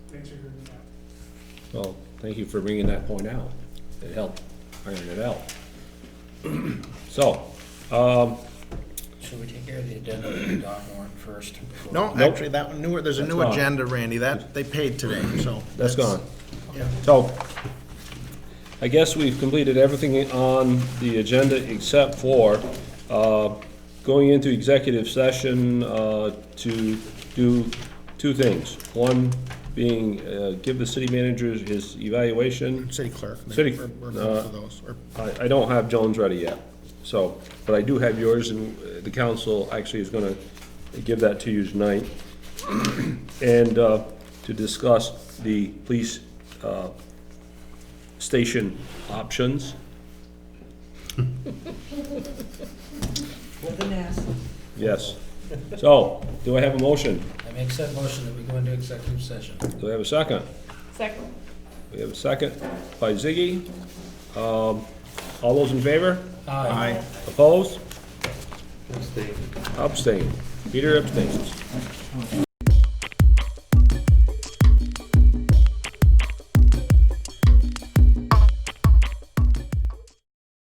Well, thank you for bringing that point out. It helped iron it out. So, Should we take care of the addendum to the Don warrant first? before- No, Nope. actually, that one, newer, there's a That's new gone. Mm-hmm. agenda, Randy, that, they paid today, so. that's gone. Yeah. So, I guess we've completed everything on the agenda except for, uh, going into executive session, uh, to do two things. One being, uh, give the city manager his evaluation. City clerk. maybe City, we're- we're uh, For those, or, I, I don't have Jones ready yet, so, but I do have yours, and uh, the council actually is gonna give that to you tonight. And, uh, to discuss the police, uh, station options. With an S. Yes. So, do I have a motion? I make said motion that we go into executive session. Do I have a second? Second. We have a second by Ziggy. Um, all those in favor? Aye. Opposed? Abstain. Abstain. Peter abstains.